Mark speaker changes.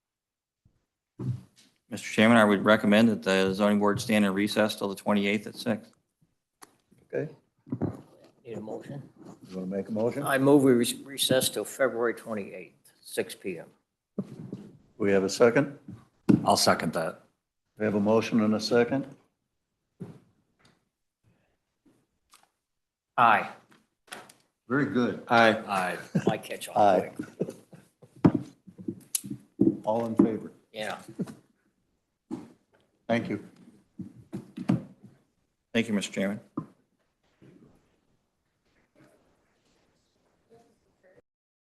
Speaker 1: Mr. Chairman, I would recommend that the zoning board stand in recess till the 28th at 6.
Speaker 2: Okay,
Speaker 3: Need a motion?
Speaker 2: you want to make a motion?
Speaker 3: I move we re- recess till February 28th, 6 PM.
Speaker 2: We have a second?
Speaker 4: I'll second that.
Speaker 2: We have a motion and a second?
Speaker 3: Aye.
Speaker 2: Very good.
Speaker 1: Aye.
Speaker 4: Aye.
Speaker 3: I catch on
Speaker 2: Aye.
Speaker 3: quick.
Speaker 2: All in favor?
Speaker 3: Yeah.
Speaker 2: Thank you.
Speaker 1: Thank you, Mr. Chairman.